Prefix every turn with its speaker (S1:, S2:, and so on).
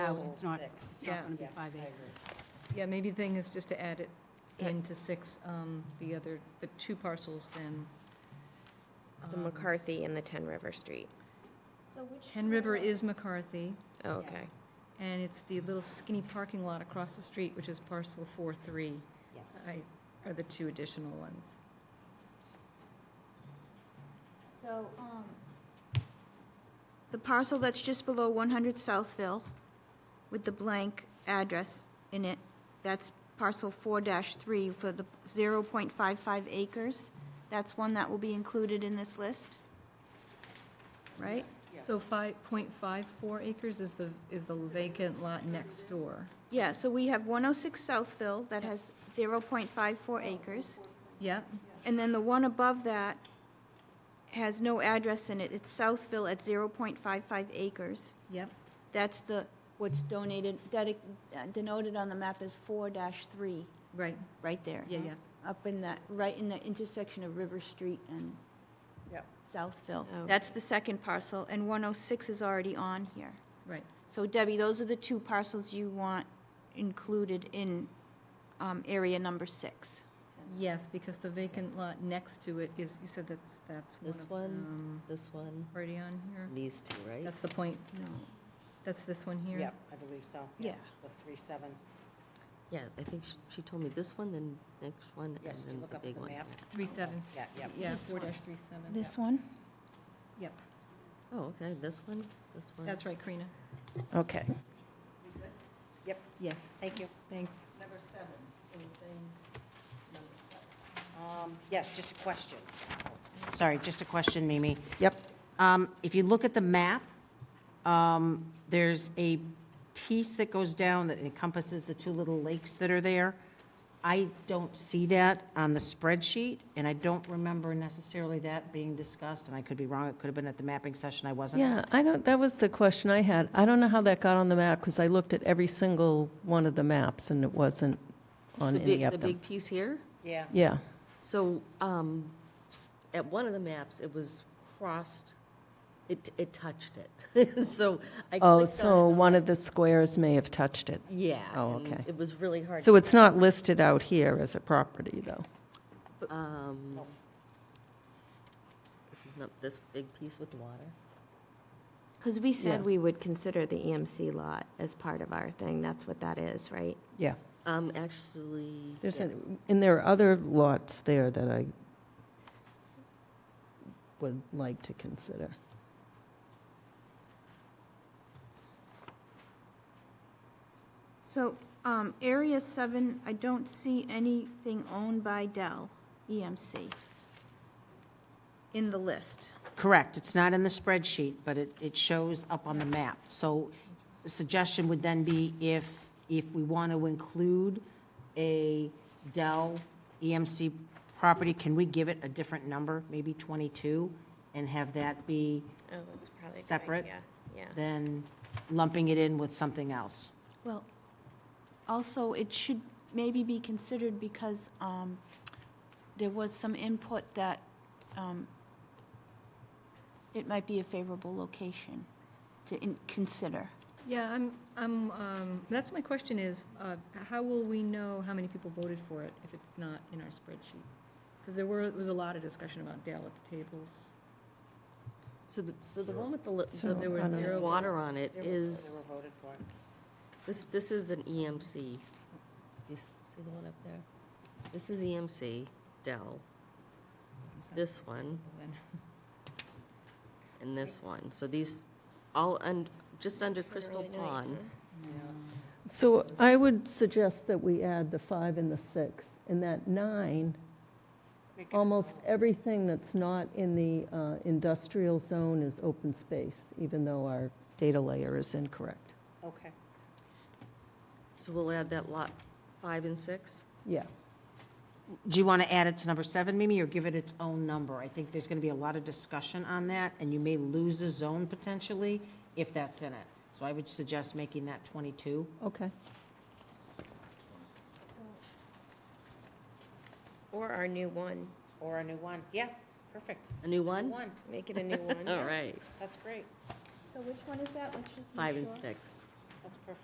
S1: out, Oh, it's not, it's
S2: Yeah.
S1: not going to
S3: Yeah,
S1: be five
S3: I
S1: acres.
S3: agree.
S2: Yeah, maybe the thing is just to add it into six, um, the other, the two parcels then.
S4: The
S2: um,
S4: McCarthy and the Ten River Street.
S5: So which
S2: Ten River is McCarthy,
S4: Oh,
S5: Yeah.
S4: okay.
S2: and it's the little skinny parking lot across the street, which is parcel four three,
S5: Yes.
S2: I- are the two additional ones.
S5: So, um, the parcel that's just below 100 Southville with the blank address in it, that's parcel 4-3 for the 0.55 acres. That's one that will be included in this list, right?
S2: So five point five four acres is the, is the vacant lot next door.
S5: Yeah, so we have 106 Southville that has 0.54 acres.
S2: Yep,
S5: And then the one above that has no address in it. It's Southville at 0.55 acres.
S2: yep,
S5: That's the, what's donated, dedi- uh, denoted on the map as four dash three,
S2: right,
S5: right there.
S2: yeah, yeah.
S5: Up in that, right in the intersection of River Street and
S3: Yep.
S5: Southville.
S4: Oh.
S5: That's the second parcel, and one oh six is already on here.
S2: Right.
S5: So Debbie, those are the two parcels you want included in, um, area number six.
S2: Yes, because the vacant lot next to it is, you said that's, that's one
S3: This
S2: of
S3: one?
S2: them.
S3: This one,
S2: Already on here?
S3: these two, right?
S2: That's the point,
S5: No.
S2: that's this one here?
S3: Yep, I believe so.
S5: Yeah.
S3: The three, seven. Yeah, I think she, she told me this one, then next one, and
S6: Yes, if you
S3: then
S6: look
S3: the
S6: up
S3: big
S6: the
S3: one.
S6: map.
S2: Three seven,
S6: Yeah, yeah.
S2: yeah,
S5: This
S2: four
S5: one.
S2: dash three seven.
S5: This one?
S2: Yep,
S3: Oh, okay, this one, this one.
S2: that's right, Karina.
S3: Okay.
S2: Yes,
S6: Thank you.
S2: thanks.
S3: Number seven, anything, number seven?
S6: Um, Yes, just a question. Sorry, just a question, Mimi.
S3: Yep.
S6: Um, If you look at the map, um, there's a piece that goes down that encompasses the two little lakes that are there. I don't see that on the spreadsheet, and I don't remember necessarily that being discussed, and I could be wrong, it could have been at the mapping session, I wasn't.
S7: Yeah, I don't, that was the question I had. I don't know how that got on the map, because I looked at every single one of the maps, and it wasn't on
S8: The
S7: any
S8: big,
S7: of
S8: the
S7: them.
S8: big piece here?
S6: Yeah.
S7: Yeah,
S8: So, um, s- at one of the maps, it was crossed, it, it touched it. So I clicked on
S7: oh,
S8: it,
S7: so
S8: I'm
S7: one
S8: like,
S7: of the squares may have touched it.
S8: Yeah.
S7: Oh,
S8: and
S7: okay.
S8: It was really hard.
S7: So it's not listed out here as a property, though.
S8: Um,
S6: Oh.
S8: This is not, this big piece with the water?
S4: Because we said
S7: Yeah.
S4: we would consider the EMC lot as part of our thing. That's what that is, right?
S7: Yeah,
S8: Um, actually,
S7: there's,
S8: yes.
S7: an- and there are other lots there that I would like to consider.
S5: So, um, area seven, I don't see anything owned by Dell EMC in the list.
S6: Correct, it's not in the spreadsheet, but it, it shows up on the map. So the suggestion would then be if, if we want to include a Dell EMC property, can we give it a different number, maybe 22, and have that be
S4: Oh, that's probably
S6: good Separate. idea.
S4: Yeah.
S6: then lumping it in with something else?
S5: Well, also, it should maybe be considered because um, there was some input that um, it might be a favorable location to in- consider.
S2: Yeah, I'm, I'm, um, that's my question is, uh, how will we know how many people voted for it if it's not in our spreadsheet? Because there were, was a lot of discussion about Dale at the tables.
S8: so the, so the one with the, li-
S7: So
S2: there were
S8: the
S2: zero-
S8: water on it
S6: They
S8: is,
S6: were voted for.
S8: this, this is an EMC. Do you s- see the one up there? This is EMC, Dell, this one.
S2: Then-
S8: and this one. So these, all, un- just under Crystal Pond.
S7: So I would suggest that we add the five and the six, and that nine, almost everything that's not in the uh, industrial zone is open space, even though our data layer is incorrect.
S6: Okay.
S8: So we'll add that lot five and six?
S7: Yeah,
S6: Do you want to add it to number seven, Mimi, or give it its own number? I think there's going to be a lot of discussion on that, and you may lose a zone potentially if that's in it. So I would suggest making that 22.
S7: okay.
S4: Or our new one.
S6: Or a new one. Yeah, perfect.
S8: A new one?
S6: One,
S4: Make it a new one.
S8: All right,
S6: that's great.
S5: So which one is that? Let's just
S8: five and six.
S6: That's perfect.